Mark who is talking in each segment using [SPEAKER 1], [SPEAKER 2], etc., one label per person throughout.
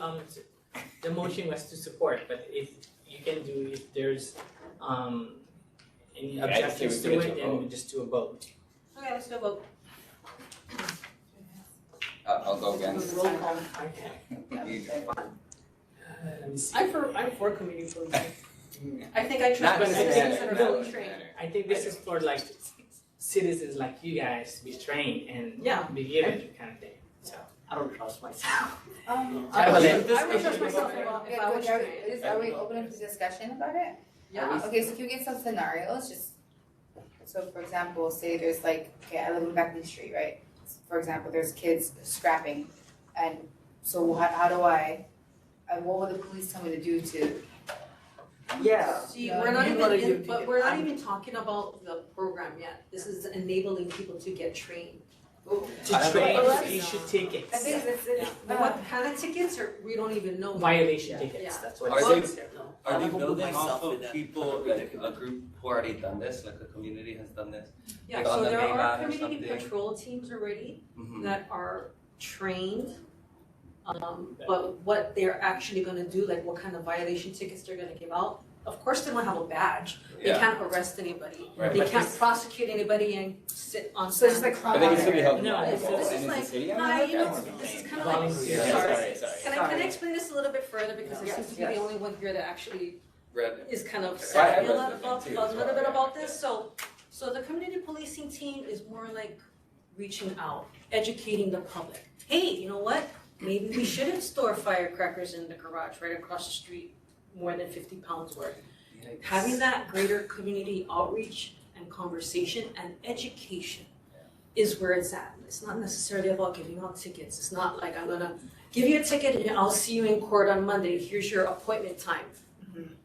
[SPEAKER 1] um s- the motion was to support, but if you can do, if there's um any
[SPEAKER 2] Yeah, I just think
[SPEAKER 1] objections
[SPEAKER 2] we
[SPEAKER 1] to
[SPEAKER 2] put it
[SPEAKER 1] it,
[SPEAKER 2] to a
[SPEAKER 1] then
[SPEAKER 2] vote.
[SPEAKER 1] we just do a vote.
[SPEAKER 3] Okay, let's go vote.
[SPEAKER 2] Uh, I'll go against.
[SPEAKER 4] Roll call.
[SPEAKER 1] Okay.
[SPEAKER 2] You-
[SPEAKER 1] Uh, let me see.
[SPEAKER 4] I'm for, I'm for community policing.
[SPEAKER 3] I think I
[SPEAKER 2] Not
[SPEAKER 3] tried
[SPEAKER 2] gonna
[SPEAKER 3] six things
[SPEAKER 2] matter,
[SPEAKER 3] in a
[SPEAKER 2] not
[SPEAKER 3] row,
[SPEAKER 2] gonna
[SPEAKER 3] train.
[SPEAKER 2] matter.
[SPEAKER 1] I think this is for like citizens like you guys be trained and
[SPEAKER 4] Yeah.
[SPEAKER 1] be given kind of thing, so.
[SPEAKER 4] I don't trust myself.
[SPEAKER 5] Um,
[SPEAKER 1] I
[SPEAKER 4] would-
[SPEAKER 3] I would trust myself a lot if I was
[SPEAKER 5] are,
[SPEAKER 3] trained.
[SPEAKER 5] is, are we open to discussion about it?
[SPEAKER 4] Yeah.
[SPEAKER 5] Okay, so can we get some scenarios, just, so for example, say there's like, okay, I live in Beckman Street, right? For example, there's kids scrapping, and so how, how do I, and what would the police tell me to do to,
[SPEAKER 4] Yeah.
[SPEAKER 3] See,
[SPEAKER 4] Yeah,
[SPEAKER 3] we're not
[SPEAKER 4] you
[SPEAKER 3] even,
[SPEAKER 4] gotta
[SPEAKER 3] in-
[SPEAKER 4] do-
[SPEAKER 3] but we're not
[SPEAKER 4] I'm-
[SPEAKER 3] even talking about the program yet. This is enabling people to get trained.
[SPEAKER 5] oh.
[SPEAKER 2] I
[SPEAKER 1] To
[SPEAKER 2] don't
[SPEAKER 1] train,
[SPEAKER 5] know.
[SPEAKER 1] you should take it.
[SPEAKER 5] I think it's, it's,
[SPEAKER 3] But what kind of tickets are, we don't even know.
[SPEAKER 1] Violation
[SPEAKER 4] Yeah.
[SPEAKER 1] tickets, that's what
[SPEAKER 2] Are
[SPEAKER 1] it
[SPEAKER 2] they-
[SPEAKER 1] says here.
[SPEAKER 2] Are
[SPEAKER 4] I
[SPEAKER 2] they
[SPEAKER 4] will put
[SPEAKER 2] building
[SPEAKER 4] myself
[SPEAKER 2] off
[SPEAKER 4] in
[SPEAKER 2] of
[SPEAKER 4] that
[SPEAKER 2] people, like a group who already done this, like a community has done this?
[SPEAKER 3] Yeah,
[SPEAKER 2] Like on
[SPEAKER 3] so
[SPEAKER 2] the
[SPEAKER 3] there
[SPEAKER 2] main
[SPEAKER 3] are
[SPEAKER 2] line or
[SPEAKER 3] community
[SPEAKER 2] something.
[SPEAKER 3] patrol teams already
[SPEAKER 2] Mhm.
[SPEAKER 3] that are trained. Um, but what they're actually gonna do, like what kind of violation tickets they're gonna give out, of course they won't have a badge. They
[SPEAKER 2] Yeah,
[SPEAKER 3] can't arrest anybody.
[SPEAKER 2] right.
[SPEAKER 3] They
[SPEAKER 1] But
[SPEAKER 3] can't
[SPEAKER 1] this-
[SPEAKER 3] prosecute anybody and sit on.
[SPEAKER 5] so it's just
[SPEAKER 3] stand.
[SPEAKER 5] like.
[SPEAKER 2] I think it's gonna be helpful.
[SPEAKER 1] No,
[SPEAKER 2] And
[SPEAKER 1] this is
[SPEAKER 2] it's
[SPEAKER 3] like-
[SPEAKER 2] a city, I mean,
[SPEAKER 3] Nah,
[SPEAKER 2] like,
[SPEAKER 3] you
[SPEAKER 2] I
[SPEAKER 3] know,
[SPEAKER 2] don't know.
[SPEAKER 3] this is kind of like.
[SPEAKER 1] Volunteer.
[SPEAKER 2] Yeah,
[SPEAKER 3] Sorry.
[SPEAKER 2] sorry, sorry.
[SPEAKER 3] Can I, can
[SPEAKER 4] Sorry.
[SPEAKER 3] I explain this a little bit further, because I seem to be the
[SPEAKER 4] Yes.
[SPEAKER 3] only one here that actually
[SPEAKER 2] Red.
[SPEAKER 3] is kind of
[SPEAKER 2] Okay.
[SPEAKER 3] savvy
[SPEAKER 2] Well,
[SPEAKER 3] a
[SPEAKER 2] I
[SPEAKER 3] lot
[SPEAKER 2] have
[SPEAKER 3] about,
[SPEAKER 2] read
[SPEAKER 3] a
[SPEAKER 2] it too,
[SPEAKER 3] little bit
[SPEAKER 2] so-
[SPEAKER 3] about this, so, so the community policing team is more like reaching out, educating the public. Hey, you know what, maybe we shouldn't store firecrackers in the garage right across the street, more than fifty pounds worth. Having that greater community outreach and conversation and education is where it's at. It's not necessarily about giving out tickets. It's not like I'm gonna give you a ticket and I'll see you in court on Monday. Here's your appointment time.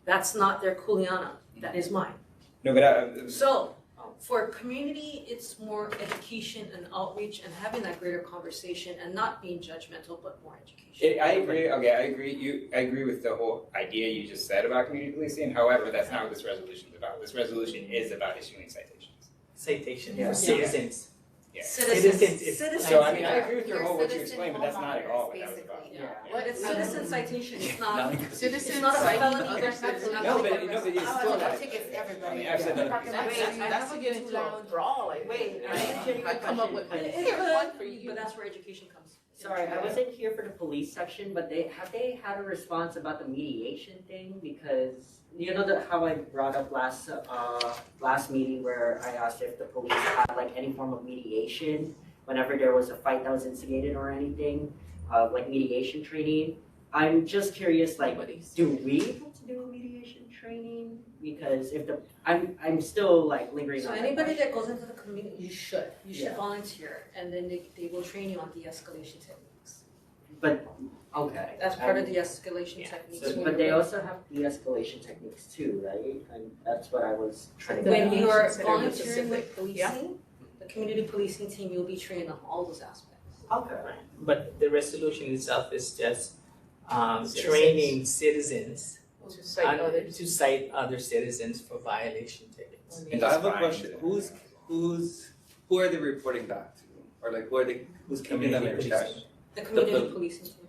[SPEAKER 3] That's not their kuleana. That is mine.
[SPEAKER 2] No, but uh, I,
[SPEAKER 3] So for community, it's more education and outreach and having that greater conversation and not being judgmental, but more education.
[SPEAKER 2] It, I agree. Okay, I agree. You, I agree with the whole idea you just said about community policing. However, that's not what this resolution is about. This resolution is about issuing citations.
[SPEAKER 1] Citation
[SPEAKER 4] Yeah.
[SPEAKER 1] for citizens.
[SPEAKER 2] Yeah.
[SPEAKER 1] Citizens, it's-
[SPEAKER 3] Citizens.
[SPEAKER 2] So I mean, I
[SPEAKER 5] Yeah.
[SPEAKER 2] agree with your
[SPEAKER 5] Your
[SPEAKER 2] whole what you
[SPEAKER 5] citizen
[SPEAKER 2] explained, but that's not at all what that was
[SPEAKER 5] homeowners,
[SPEAKER 2] about.
[SPEAKER 5] basically.
[SPEAKER 4] Yeah.
[SPEAKER 3] But it's citizen citation. It's not.
[SPEAKER 5] Citizens
[SPEAKER 3] It's not a
[SPEAKER 5] citing
[SPEAKER 3] felony.
[SPEAKER 5] other
[SPEAKER 3] It's
[SPEAKER 5] citizens.
[SPEAKER 3] not-
[SPEAKER 2] No, but no, but it's
[SPEAKER 5] I
[SPEAKER 2] still
[SPEAKER 5] want
[SPEAKER 2] not.
[SPEAKER 5] tickets everybody.
[SPEAKER 2] I mean, I've said that.
[SPEAKER 5] Parking lot.
[SPEAKER 4] That's, that's, that's
[SPEAKER 6] Wait,
[SPEAKER 4] get into a brawl, like.
[SPEAKER 6] Wait,
[SPEAKER 4] I can't
[SPEAKER 6] I come up with my-
[SPEAKER 3] It- it
[SPEAKER 6] Here's
[SPEAKER 3] could,
[SPEAKER 6] one for you.
[SPEAKER 3] But that's where education comes.
[SPEAKER 6] Sorry, I wasn't here for the police section, but they, have they had a response about the mediation thing? Because, you know, the, how I brought up last, uh, last meeting where I asked if the police had like any form of mediation? Whenever there was a fight that was instigated or anything, uh, like mediation training? I'm just curious, like, do we have to do a mediation training? Because if the, I'm, I'm still like lingering
[SPEAKER 3] So
[SPEAKER 6] on that
[SPEAKER 3] anybody
[SPEAKER 6] question.
[SPEAKER 3] that goes into the community, you should, you should
[SPEAKER 6] Yeah.
[SPEAKER 3] volunteer, and then they, they will train you on de-escalation techniques.
[SPEAKER 6] But, okay.
[SPEAKER 3] That's part
[SPEAKER 6] I'm-
[SPEAKER 3] of de-escalation
[SPEAKER 1] Yeah.
[SPEAKER 3] techniques.
[SPEAKER 1] So-
[SPEAKER 6] Um, But they also have de-escalation techniques too, right? And that's what I was trying to.
[SPEAKER 3] When you are
[SPEAKER 4] Consider the
[SPEAKER 3] volunteering with
[SPEAKER 4] yeah.
[SPEAKER 3] policing, the community policing team, you'll be trained on all those aspects.
[SPEAKER 6] Okay.
[SPEAKER 1] But the resolution itself is just um
[SPEAKER 4] Citizens.
[SPEAKER 1] training citizens
[SPEAKER 4] To cite
[SPEAKER 1] and-
[SPEAKER 4] others.
[SPEAKER 1] to cite other citizens for violation tickets.
[SPEAKER 2] And I have a question. Who's who's who are they reporting back to, or like who are they who's keeping them in
[SPEAKER 1] Community
[SPEAKER 2] check?
[SPEAKER 1] policing.
[SPEAKER 3] The community
[SPEAKER 2] the-
[SPEAKER 3] policing team.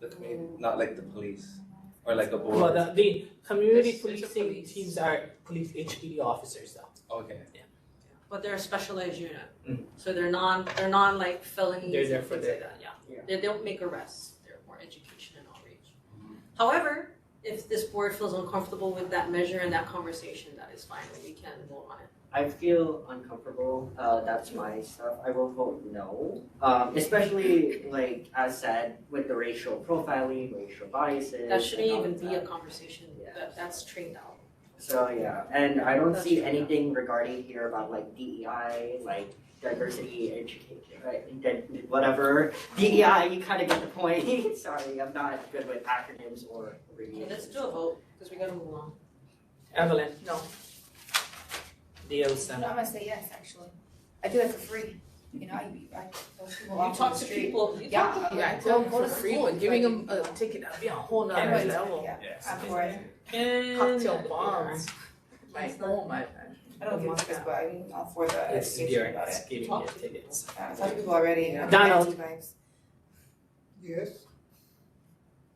[SPEAKER 2] The community, not like the police, or like a board.
[SPEAKER 1] Well, the the community
[SPEAKER 4] There's- there's a
[SPEAKER 1] policing
[SPEAKER 4] police.
[SPEAKER 1] teams are police HPD officers though.
[SPEAKER 2] Okay.
[SPEAKER 3] But they're a specialized unit,
[SPEAKER 1] Mm.
[SPEAKER 3] so they're non, they're non like felonies
[SPEAKER 1] They're
[SPEAKER 3] and
[SPEAKER 1] there
[SPEAKER 3] things
[SPEAKER 1] for
[SPEAKER 3] like
[SPEAKER 1] the-
[SPEAKER 3] that, yeah.
[SPEAKER 6] Yeah.
[SPEAKER 3] They don't make arrests, they're more education and outreach. However, if this board feels uncomfortable with that measure and that conversation, that is fine, we can vote on it.
[SPEAKER 6] I feel uncomfortable, uh, that's my stuff, I will vote no. Um, especially like as said, with the racial profiling, racial biases and all
[SPEAKER 3] That shouldn't even
[SPEAKER 6] of
[SPEAKER 3] be
[SPEAKER 6] that.
[SPEAKER 3] a conversation,
[SPEAKER 6] Yeah.
[SPEAKER 3] that, that's trained out.
[SPEAKER 6] So yeah, and I don't
[SPEAKER 3] That's
[SPEAKER 6] see
[SPEAKER 3] true, yeah.
[SPEAKER 6] anything regarding here about like DEI, like diversity, education, right? Then whatever, DEI, you kind of get the point. Sorry, I'm not good with acronyms or
[SPEAKER 3] Okay,
[SPEAKER 6] abbreviations.
[SPEAKER 3] let's do a vote, because we gotta move along.
[SPEAKER 1] Evelyn,
[SPEAKER 4] No.
[SPEAKER 1] DL
[SPEAKER 5] No, I'm
[SPEAKER 1] Sam.
[SPEAKER 5] gonna say yes, actually. I do that for free, you know, I, I, those people
[SPEAKER 3] You
[SPEAKER 5] walk on
[SPEAKER 3] talk
[SPEAKER 5] the
[SPEAKER 3] to
[SPEAKER 5] street.
[SPEAKER 3] people, you
[SPEAKER 5] Yeah,
[SPEAKER 3] talk to people.
[SPEAKER 4] Yeah, I
[SPEAKER 5] Go-
[SPEAKER 4] tell them
[SPEAKER 5] go
[SPEAKER 4] for
[SPEAKER 5] to
[SPEAKER 4] free,
[SPEAKER 5] school,
[SPEAKER 4] but giving them
[SPEAKER 5] like-
[SPEAKER 4] a ticket, that'd be a whole
[SPEAKER 1] Yeah.
[SPEAKER 4] nother level.
[SPEAKER 5] Yeah.
[SPEAKER 2] Yes.
[SPEAKER 5] I'm for it.
[SPEAKER 1] And
[SPEAKER 4] Cocktail bombs. My
[SPEAKER 5] It's
[SPEAKER 4] home, my.
[SPEAKER 5] I don't give a fuck, but I'm all for the
[SPEAKER 1] It's
[SPEAKER 5] education
[SPEAKER 1] during,
[SPEAKER 5] about it.
[SPEAKER 1] it's giving
[SPEAKER 3] Talk
[SPEAKER 1] you
[SPEAKER 3] to
[SPEAKER 1] tickets.
[SPEAKER 5] Uh, I talked to people already, and I'm
[SPEAKER 1] Donald.
[SPEAKER 5] anti-vibes.
[SPEAKER 7] Yes,